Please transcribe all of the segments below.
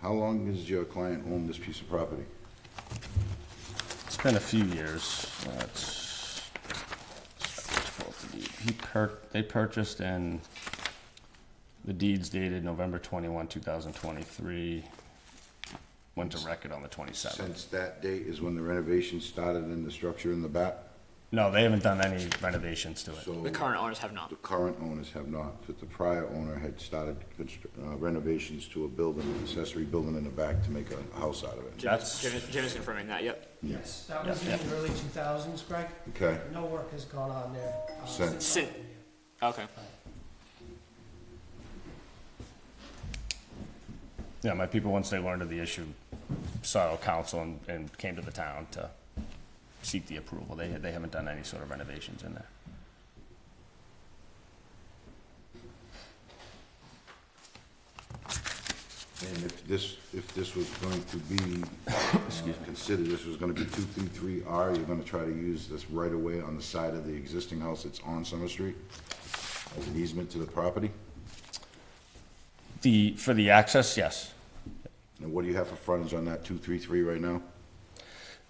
How long has your client owned this piece of property? It's been a few years. That's, he per, they purchased and the deeds dated November twenty-one, two thousand twenty-three. Went to record on the twenty-seventh. Since that date is when the renovation started in the structure in the back? No, they haven't done any renovations to it. So The current owners have not. The current owners have not, but the prior owner had started constru- uh, renovations to a building, an accessory building in the back to make a house out of it. Jim is- That's- Jim is, Jim is confirming that, yep. Yes, that was in Yeah, the early 2000s, Greg. Okay. No work has gone on there. uh, Since. Sin, okay. Yeah, my people, once they learned of the issue, sought council and, and came to the town to seek the approval. They, they haven't done any sort of renovations in there. And if this, if this was going to be, uh, considered, this was gonna be two, three, three R, you're gonna try to use this right away on the side of the existing house that's on Summer Street as an easement to the property? The, for the access, yes. And what do you have for frontage on that two, three, three right now?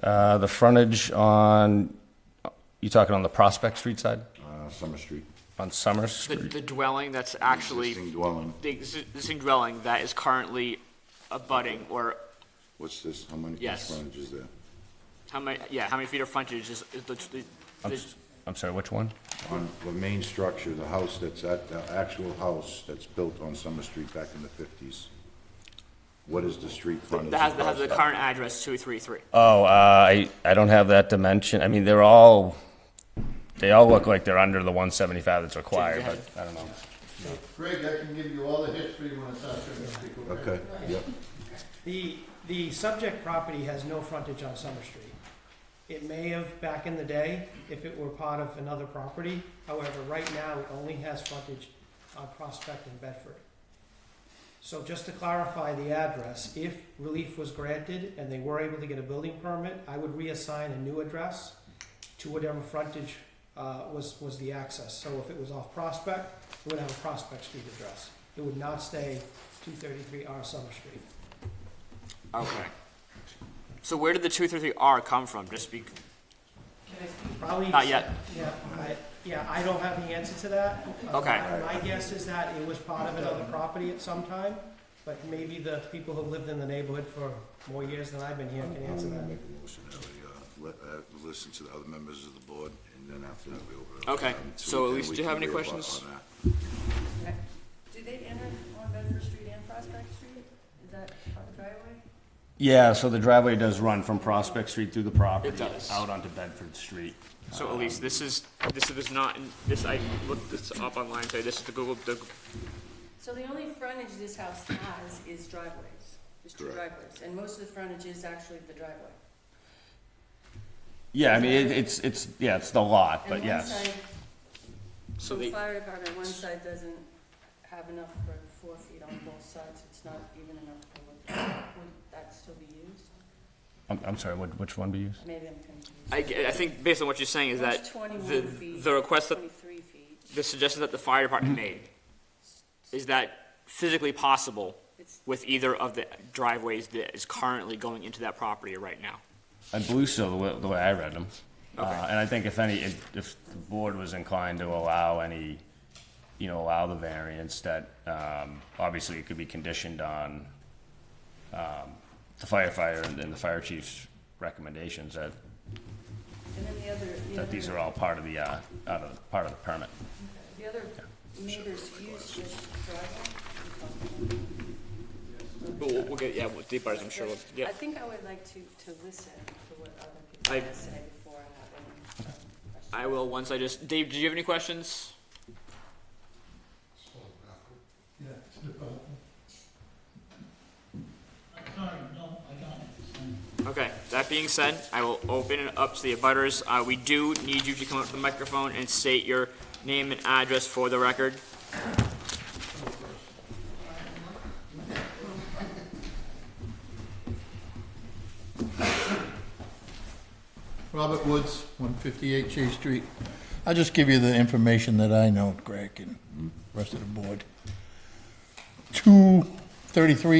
Uh, the frontage on, you talking on the Prospect Street side? Uh, Summer Street, On Summer The, Street? the dwelling that's actually, existing dwelling, the existing dwelling that is currently abutting, or what's this, how many feet Yes. frontage is there? how many, yeah, how many feet of frontage is, is the, the- I'm the, s- I'm sorry, which one? on the main structure, the house that's at, the actual house that's built on Summer Street back in the fifties. What is the street frontage? that has, that has the across current address two three three. Oh, uh, I, I don't have that dimension. I mean, they're all, they all look like they're under the one seventy-five that's required, but I don't know. Greg, I can give you all the history when it's after the speaker. that? Okay, yep, The, the subject property has no frontage on Summer Street. It may have back in the day if it were part of another property. However, right now, it only has frontage on Prospect and Bedford. So just to clarify the address, if relief was granted and they were able to get a building permit, I would reassign a new address to whatever frontage uh, was, was the access. So if it was off Prospect, it would have a Prospect Street address. It would not stay 233R Summer Street. Okay. So where did the two three three R come from? Just be, Probably. Not yet. Yeah, I, yeah, I don't have the answer to that. Uh, Okay. My my guess is that it was part of another property at some time, but maybe the people who've lived in the neighborhood for more years than I've been here can answer that. make a motion that we, uh, let, uh, listen to the other members of the board, and then after that, we'll. Okay, um, see so if Elise, we do you have can any reabut questions? on that. Do they enter on Bedford Street and Prospect Street? Is that on the driveway? Yeah, so the driveway does run from Prospect Street through the property. It does. Out onto Bedford Street. so Elise, this is, this is not, in- this, I looked this up online, so this is the Google, the So the only frontage this house has is driveways, is two Correct. driveways, and most of the frontage is actually the driveway. Yeah, I mean, it, it's, it's, yeah, it's the lot, And but one yes. side, So the they- fire department, one side doesn't have enough for four feet on both sides, it's not even enough for what, would that still be used? I'm, I'm sorry, what, which one do you use? Maybe I'm confused. I, g- I think based on what you're saying is that That's twenty-one the, feet. the request that, Twenty-three feet, the suggestion that the fire department made, is that physically possible it's, with either of the driveways that is currently going into that property right now? I believe so, the way, the way I read them. Uh, Okay. and I think if any, if, if the board was inclined to allow any, you know, allow the variance that, um, obviously it could be conditioned on, um, the firefighter and and the fire chief's recommendations that, and then the other, the that these other- are all part of the, uh, out of, part of the permit. The other meters used with driveway? But we'll, we'll get, yeah, we'll deep dive, I'm sure, we'll- yeah. I think I would like to, to listen to what other I- people say before I have any um, questions. I will, once I just, Dave, do you have any questions? Okay, that being said, I will open it up to the abutters. Uh, we do need you to come up to the microphone and state your name and address for the record. Robert Woods, one fifty-eight Chase Street. I'll just give you the information that I know, Greg, and rest of the board. Two thirty-three